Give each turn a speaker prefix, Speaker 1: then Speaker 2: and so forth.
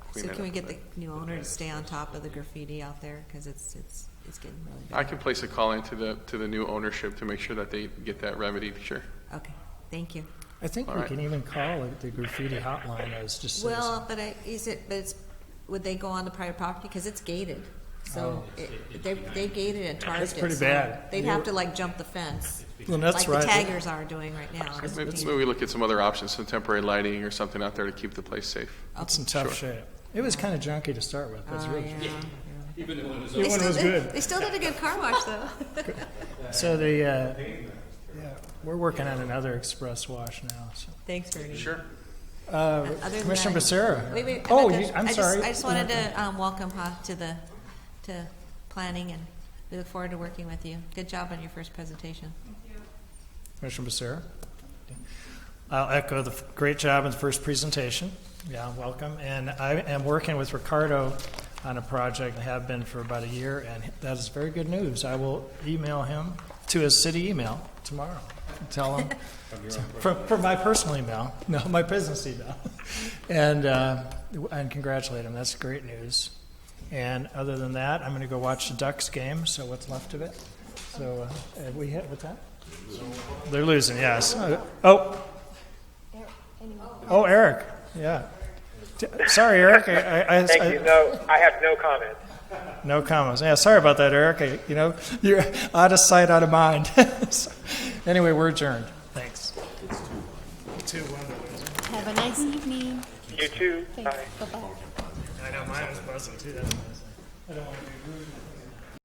Speaker 1: clean
Speaker 2: So
Speaker 1: it
Speaker 2: can we
Speaker 1: up.
Speaker 2: get the new owner to stay on top of the graffiti out there? Because it's, it's, it's getting really bad.
Speaker 1: I can place a call into the, to the new ownership to make sure that they get that remedied, sure.
Speaker 2: Okay, thank you.
Speaker 3: I think
Speaker 1: All
Speaker 3: we
Speaker 1: right.
Speaker 3: can even call it the graffiti hotline as just.
Speaker 2: Well, but I, is it, but it's, would they go on the private property? Because it's gated. So
Speaker 3: Oh.
Speaker 2: it- they, they gated and targed it.
Speaker 3: That's pretty
Speaker 2: so
Speaker 3: bad.
Speaker 2: They'd have to like jump the fence,
Speaker 3: and
Speaker 2: like
Speaker 3: that's
Speaker 2: the
Speaker 3: right.
Speaker 2: taggers are doing right now. It's-
Speaker 1: Maybe maybe we look at some other options, some temporary lighting or something out there to keep the place safe.
Speaker 3: It's in tough
Speaker 1: Sure.
Speaker 3: shape. It was kind of junky to start with. That's
Speaker 2: Oh,
Speaker 3: really
Speaker 2: yeah.
Speaker 3: It
Speaker 2: They
Speaker 3: one
Speaker 2: still
Speaker 3: was
Speaker 2: did-
Speaker 3: good.
Speaker 2: They still did a good car wash, though.
Speaker 3: So the uh, yeah, we're working on another express wash now. So.
Speaker 2: Thanks, Bernie.
Speaker 1: Sure.
Speaker 3: Uh,
Speaker 2: Other than
Speaker 3: Commissioner
Speaker 2: that-
Speaker 3: Becerra.
Speaker 2: Wait, wait. I
Speaker 3: oh,
Speaker 2: meant
Speaker 3: you,
Speaker 2: to-
Speaker 3: I'm
Speaker 2: I just-
Speaker 3: sorry.
Speaker 2: I just wanted to um, welcome Ha to the, to planning, and we look forward to working with you. Good job on your first presentation.
Speaker 3: Commissioner Becerra. I'll echo the f- great job in the first presentation. Yeah, welcome. And I am working with Ricardo on a project, and have been for about a year, and that is very good news. I will email him to his city email tomorrow. Tell him from, from my personal email, no, my business email, and uh, and congratulate him. That's great news. And other than that, I'm going to go watch the Ducks game. So what's left of it? So uh, have we hit with that? They're losing, yes. Oh. Oh, Eric. Yeah. D- Sorry, Eric. I, I, I,
Speaker 4: Thank you. No, I have no comment.
Speaker 3: no comments. Yeah, sorry about that, Eric. I, you know, you're out of sight, out of mind. So, anyway, we're adjourned. Thanks. It's two one. Two one.
Speaker 5: Have a nice evening.
Speaker 4: You too.
Speaker 5: Thanks.
Speaker 4: Bye.
Speaker 5: Bye bye.
Speaker 3: I know mine was buzzing too. That's what I was saying. I don't want to be rude.